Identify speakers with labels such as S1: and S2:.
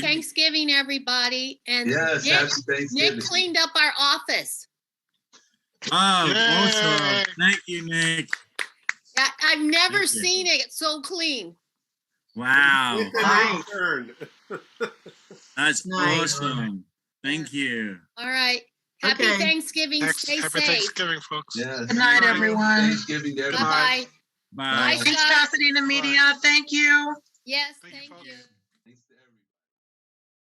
S1: Thanksgiving, everybody. And
S2: Yes,
S1: Nick,
S2: happy
S1: Nick
S2: Thanksgiving.
S1: cleaned up our office.
S3: Oh,
S4: Yay.
S3: awesome. Thank you, Nick.
S1: I, I've never
S3: Thank you.
S1: seen it so clean.
S3: Wow.
S5: Nice.
S4: Turn.
S3: That's
S5: Nice.
S3: awesome. Thank you.
S1: All right. Happy
S5: Okay.
S1: Thanksgiving.
S4: Thanks-
S1: Stay
S4: Happy
S1: safe.
S4: Thanksgiving, folks.
S2: Yes.
S5: Good night,
S2: Happy
S5: everyone.
S2: Thanksgiving, to everybody.
S1: Bye-bye.
S3: Bye.
S1: Bye.
S5: Thanks, Cassidy and the media. Thank you.
S1: Yes,
S4: Thank you,
S1: thank
S4: folks.
S1: you.